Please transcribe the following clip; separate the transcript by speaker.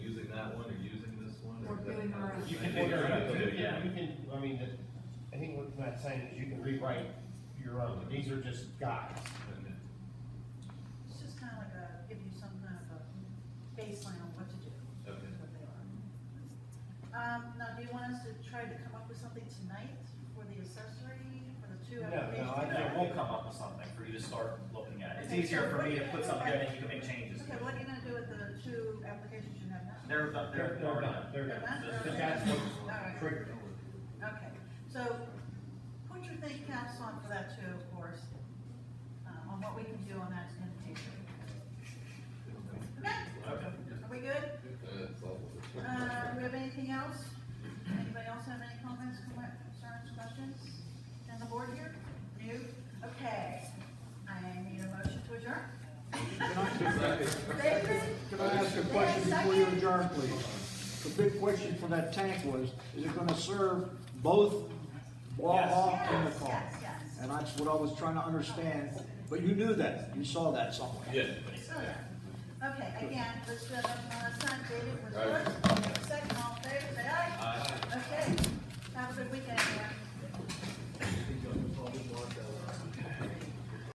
Speaker 1: figure out.
Speaker 2: You can figure it out, too, yeah.
Speaker 3: You can, I mean, the- I think what Matt's saying is you can rewrite your own, these are just guides.
Speaker 4: It's just kind of like a, give you some kind of a baseline on what to do.
Speaker 2: Okay.
Speaker 4: is what they are. Um, now, do you want us to try to come up with something tonight for the accessory, for the two
Speaker 3: No, no,
Speaker 4: applications?
Speaker 3: I
Speaker 2: And then we'll come up with something for you to start looking at. It's easier for me to put something in and you can make changes.
Speaker 4: Okay, what are you gonna do with the two applications you have now?
Speaker 2: They're, done- they're, they're done.
Speaker 3: They're not, because that's what triggered it.
Speaker 4: Okay, so put your think caps on for that too, of course, uh, on what we can do on that in the future. Okay,
Speaker 2: Okay.
Speaker 4: are we good? Uh, do we have anything else? Anybody else have any comments, comment- concerns, questions? And the board here? New? Okay, I need a motion to adjourn. David?
Speaker 5: Can I ask a question before you adjourn, please? The big question for that tank was, is it gonna serve both Waha and the
Speaker 4: Yes,
Speaker 5: car?
Speaker 4: yes, yes.
Speaker 5: And that's what I was trying to understand, but you knew that, you saw that somewhere.
Speaker 4: Oh, yeah. Okay, again, let's, uh, last time David was first, second, all in favor, say aye.
Speaker 2: Uh,